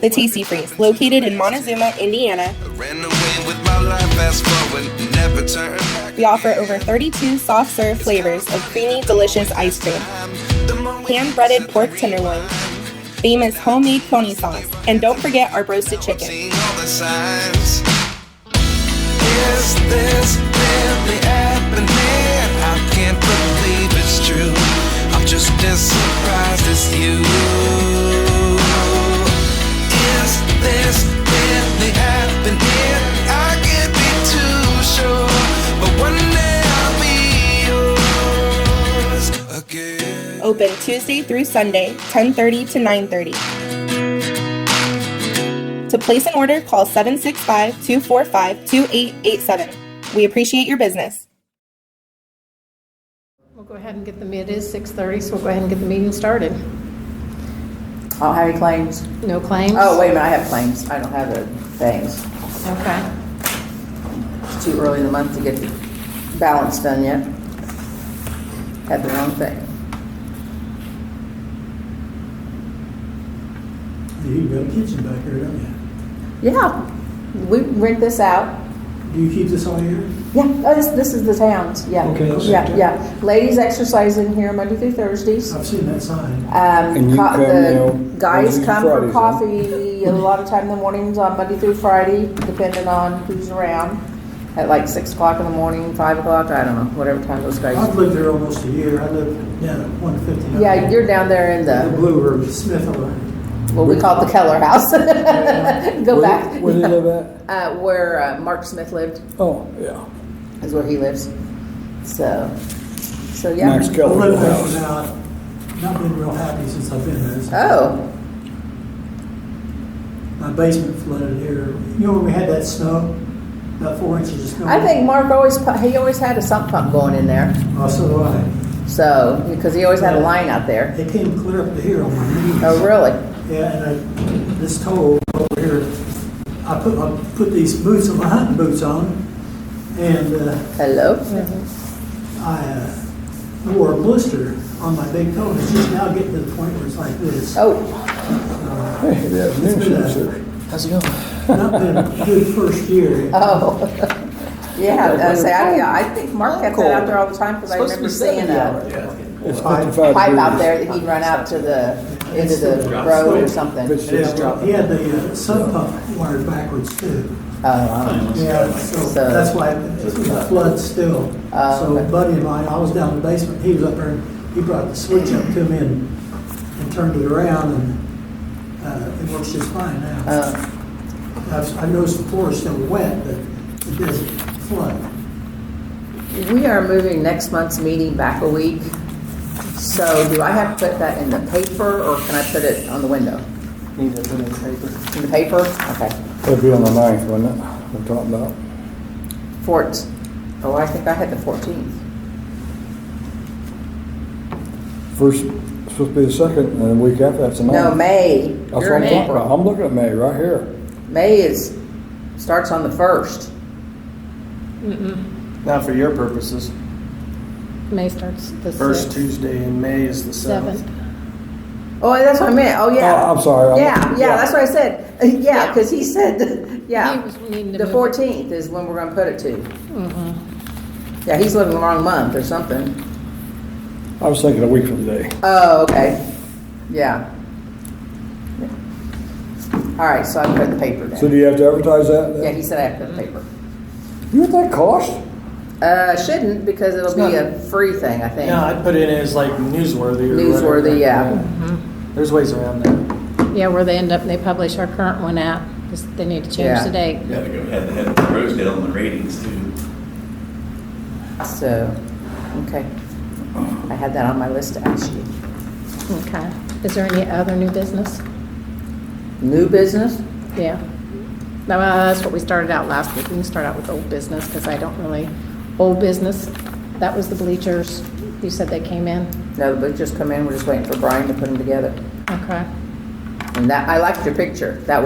The TC Freeze, located in Montezuma, Indiana. I ran away with my life, fast forward, never turn back. We offer over 32 soft serve flavors of creamy, delicious ice cream, hand breaded pork tenderloin, famous homemade pony sauce, and don't forget our roasted chicken. Seeing all the signs. Is this really happening? I can't believe it's true. I'm just as surprised as you. Is this really happening? I can't be too sure, but one day I'll be yours again. Open Tuesday through Sunday, 10:30 to 9:30. To place an order, call 765-245-2887. We appreciate your business. We'll go ahead and get the, it is 6:30, so we'll go ahead and get the meeting started. I don't have any claims. No claims? Oh, wait a minute, I have claims. I don't have the things. Okay. It's too early in the month to get the balance done yet. Had the wrong thing. You've got a kitchen back here, don't you? Yeah, we rent this out. Do you keep this all year? Yeah, oh, this, this is the town's, yeah. Okay, Oh. that's- Yeah, yeah. Ladies exercise in here Monday through Thursdays. I've seen that sign. Um, And you co- come the now Mondays guys and come for Fridays, huh? coffee a lot of time in the mornings on Monday through Friday, depending on who's around. At like six o'clock in the morning, five o'clock, I don't know, whatever time those I've guys. lived there almost a year. I live down at one fifty. Yeah, you're down there in The the, Blue Room, Smith Line. what we call it the Keller House. Go Where- back. Where do they live at? Uh, where uh, Mark Smith lived Oh, yeah. is where he lives. So, so yeah. Max I've lived Keller's there for house. now. Not been real happy since I've been there. So Oh, My basement flooded here. You know when we had that snow, about four inches of snow. I think Mark always pu- he always had a sump pump going in there. Oh, so do I. So because he always had a line out there. It came clear up to here on my knees. Oh, really? Yeah, and I, this toe over here, I put, I put these boots, my hunting boots on, and, uh, Hello. I uh, wore a blister on my big toe, and it's just now getting to the point where it's like this. Oh, Hey, good afternoon, It's been a- sir. How's it going? Not been a good first year. oh. Yeah, I say, I, yeah, I think Mark had that out there all the time because I remember seeing a It's Pipe. fifty-five pipe out degrees. there that he'd run out to the end of the road or something. But it's Yeah, well, dropping. He had the uh, sub pump wired backwards too. Oh, wow. Yeah, so So- that's why it's a flood still. Oh, So okay. a buddy of mine, I was down in the basement, he was up there, and he brought the switch up to me and, and turned it around, and uh, it works just fine now. Uh, I've- I noticed the floor is still wet, but it doesn't flood. We are moving next month's meeting back a week. So do I have to put that in the paper or can I put it on the window? Need to put in paper. In the paper? Okay. It'd be on the ninth, wouldn't it? We're talking about. Fort, oh, I think I had the fourteenth. First, supposed to be the second, and the week after, that's the ninth. No, May. That's what You're I'm in talking about. April. I'm looking at May right here. May is, starts on the first. Not for your purposes. May starts the 6th. First Tuesday in May is the seventh. 7th. Oh, that's what I meant. Oh, yeah. Oh, I'm sorry. I'm- Yeah, yeah, yeah. that's what I said. Yeah, because he said, He yeah, was needing to the move it. fourteenth is when we're gonna put it to. Yeah, he's looking the wrong month or something. I was thinking a week from today. Oh, okay, yeah. All right, so I put the paper So down. do you have to advertise that? then? Yeah, he said I have to put the paper. You know what that cost? Uh, shouldn't, because it'll It's be not- a free thing, I think. Yeah, I'd put it in as like newsworthy or whatever. Mm-hmm. Newsworthy, yeah. There's ways around that. Yeah, where they end up, they publish our current one out, 'cause they need to change Yeah. the date. Got to go head to head with Rosedale on the ratings too. So, okay. I had that on my list to ask you. Okay. Is there any other new business? New business? Yeah. No, uh, That's what we started out last week. We can start out with old business, because I don't really, old business, that was the bleachers. You said they came in? No, but just come in, we're just waiting for Brian to put them together. Okay. And that, I liked your picture. That